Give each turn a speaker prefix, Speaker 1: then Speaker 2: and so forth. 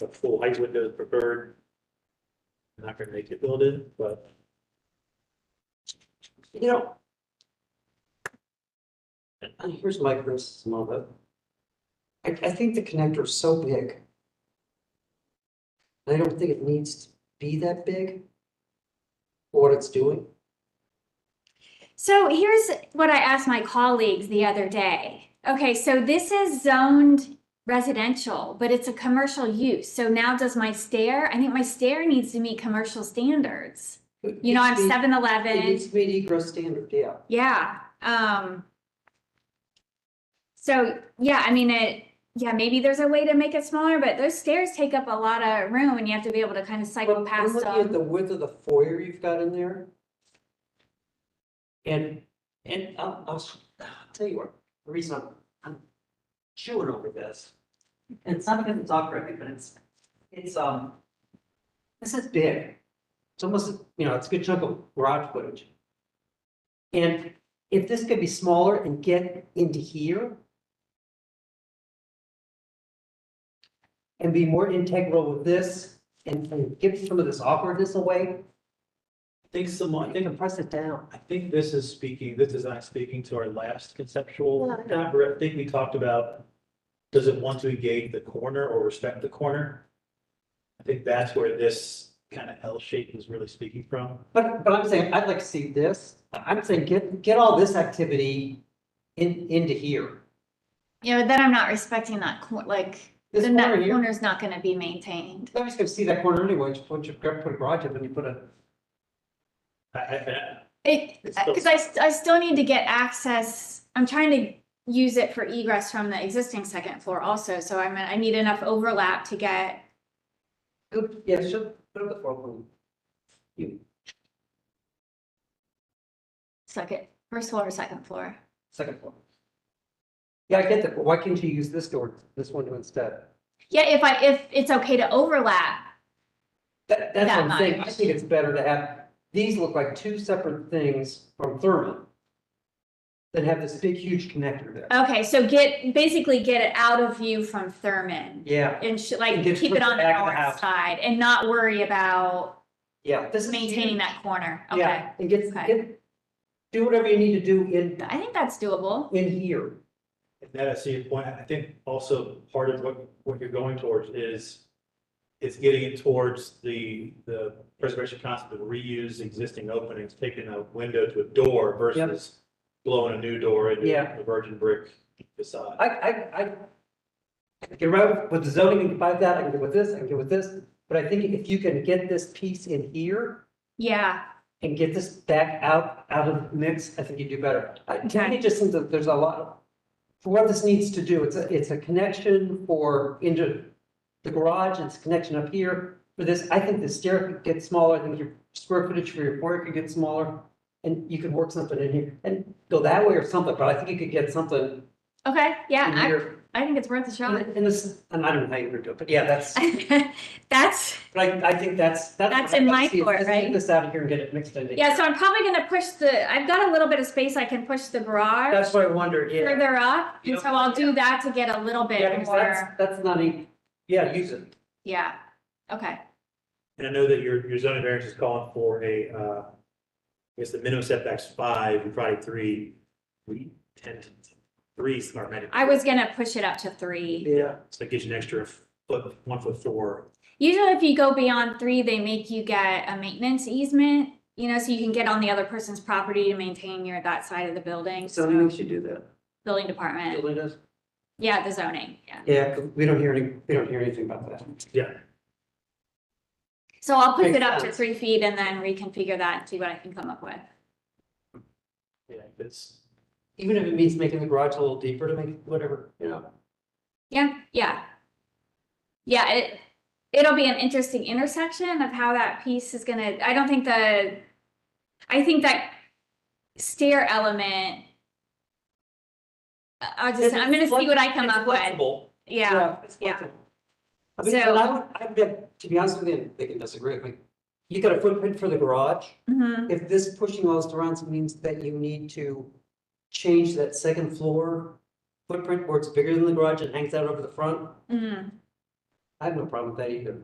Speaker 1: the full height window is preferred. I'm Not gonna make it build it, but.
Speaker 2: You know. And here's my criticism of it. I, I think the connector's so big. I don't think it needs to be that big. For what it's doing.
Speaker 3: So here's what I asked my colleagues the other day. Okay, so this is zoned residential, but it's a commercial use. So now does my stair, I think my stair needs to meet commercial standards. You know, I'm
Speaker 2: It needs to
Speaker 3: seven
Speaker 2: be- It
Speaker 3: eleven,
Speaker 2: needs to meet egress standard, yeah.
Speaker 3: yeah, um. So, yeah, I mean, it, yeah, maybe there's a way to make it smaller, but those stairs take up a lot of room and you have to be able to kind of cycle
Speaker 2: But I'm
Speaker 3: past
Speaker 2: looking at
Speaker 3: them.
Speaker 2: the width of the foyer you've got in there. And, and I'll, I'll, s- I'll tell you what, the reason I'm, I'm chewing over this. And it's not because it's awkward, but it's, it's, um, this is big. It's almost, you know, it's a good chunk of garage footage. And if this could be smaller and get into here. And be more integral with this and, and give some of this awkwardness away,
Speaker 1: I think some, I think,
Speaker 2: press it down.
Speaker 1: I think this is speaking, this design is speaking to our last conceptual,
Speaker 2: Yeah, I know.
Speaker 1: number. I think we talked about. Does it want to engage the corner or respect the corner? I think that's where this kind of L shape is really speaking from.
Speaker 2: But, but I'm saying, I'd like to see this, I'm saying, get, get all this activity in, into here.
Speaker 3: You know, then I'm not respecting that, cor- like,
Speaker 2: This
Speaker 3: then that
Speaker 2: corner here.
Speaker 3: corner's not gonna be maintained.
Speaker 2: Nobody's gonna see that corner anyway, just put, your- put a garage up and you put a,
Speaker 1: I, I, I-
Speaker 3: It,
Speaker 1: It's still-
Speaker 3: because I, st- I still need to get access, I'm trying to use it for egress from the existing second floor also, so I mean, I need enough overlap to get,
Speaker 2: yeah, should, put up the four corner. You,
Speaker 3: second, first floor or second floor.
Speaker 2: second floor. Yeah, I get that, but why can't you use this door, this window instead?
Speaker 3: Yeah, if I, if it's okay to overlap,
Speaker 2: That, that's
Speaker 3: That
Speaker 2: what I'm saying, I
Speaker 3: much.
Speaker 2: think it's better to have, these look like two separate things from Thurman. Than have this big huge connector there.
Speaker 3: okay, so get, basically get it out of view from Thurman.
Speaker 2: Yeah,
Speaker 3: And sh like,
Speaker 2: And get
Speaker 3: keep
Speaker 2: towards
Speaker 3: it
Speaker 2: the
Speaker 3: on the
Speaker 2: back of the
Speaker 3: north
Speaker 2: house.
Speaker 3: side and not worry about
Speaker 2: yeah, this is.
Speaker 3: maintaining that corner, okay?
Speaker 2: Yeah, and get,
Speaker 3: okay.
Speaker 2: get, do whatever you need to do in,
Speaker 3: I think that's doable,
Speaker 2: in here.
Speaker 1: and that I see your point. I think also part of what, what you're going towards is. Is getting it towards the, the preservation concept of reuse existing openings, taking a window to a door versus. Blowing a new door into
Speaker 2: Yeah.
Speaker 1: a virgin brick facade.
Speaker 2: I, I, I I can get around with the zoning, I can buy that, I can get with this, I can get with this, but I think if you can get this piece in here
Speaker 3: yeah,
Speaker 2: and get this back out, out of the mix, I think you do better. I, to me,
Speaker 3: Okay.
Speaker 2: it just seems that there's a lot of, for what this needs to do, it's a, it's a connection for into the garage, it's a connection up here. For this, I think the stair could get smaller, I think your square footage for your foyer could get smaller. And you could work something in here and go that way or something, but I think you could get something
Speaker 3: okay, yeah,
Speaker 2: in
Speaker 3: I,
Speaker 2: here.
Speaker 3: I think it's worth a shot.
Speaker 2: And and this, and I don't know how you're gonna do it, but yeah, that's,
Speaker 3: That's,
Speaker 2: but I, I think that's, that's.
Speaker 3: That's in my
Speaker 2: Let's see,
Speaker 3: court,
Speaker 2: let's
Speaker 3: right?
Speaker 2: Get this out of here and get it mixed in.
Speaker 3: yeah, so I'm probably gonna push the, I've got a little bit of space, I can push the garage
Speaker 2: That's what I wondered, yeah.
Speaker 3: further up, and so
Speaker 2: Yeah.
Speaker 3: I'll do that to get a little bit
Speaker 2: Yeah, well, that's,
Speaker 3: further,
Speaker 2: that's not a, yeah, use it.
Speaker 3: yeah, okay.
Speaker 1: And I know that your, your zoning variance is calling for a, uh, I guess the minimum setback's five, and probably three, we tend to, three's our minimum.
Speaker 3: I was gonna push it up to three.
Speaker 2: Yeah.
Speaker 1: So it gives you an extra foot, one foot four.
Speaker 3: Usually if you go beyond three, they make you get a maintenance easement, you know, so you can get on the other person's property to maintain your, that side of the building,
Speaker 2: So we
Speaker 3: so,
Speaker 2: should do that.
Speaker 3: building department,
Speaker 2: Really does.
Speaker 3: yeah, the zoning, yeah.
Speaker 2: Yeah, 'cause we don't hear any, we don't hear anything about that.
Speaker 3: So I'll push
Speaker 2: Makes
Speaker 3: it up to
Speaker 2: sense.
Speaker 3: three feet and then reconfigure that and see what I can come up with.
Speaker 1: Yeah, it's,
Speaker 2: Even if it means making the garage a little deeper to make, whatever, you know.
Speaker 3: Yeah, yeah. Yeah, it, it'll be an interesting intersection of how that piece is gonna, I don't think the, I think that stair element. I- I'll just, I'm gonna see what I come
Speaker 2: It's
Speaker 3: up with,
Speaker 2: flexible.
Speaker 3: yeah,
Speaker 2: it's
Speaker 3: yeah.
Speaker 2: flexible. I mean,
Speaker 3: So-
Speaker 2: and I would, I bet, to be honest with you, they can disagree with me. You got a footprint for the garage.
Speaker 3: mhm,
Speaker 2: If this pushing all this around means that you need to change that second floor footprint where it's bigger than the garage and hangs out over the front,
Speaker 3: mhm.
Speaker 2: I have no problem with that either.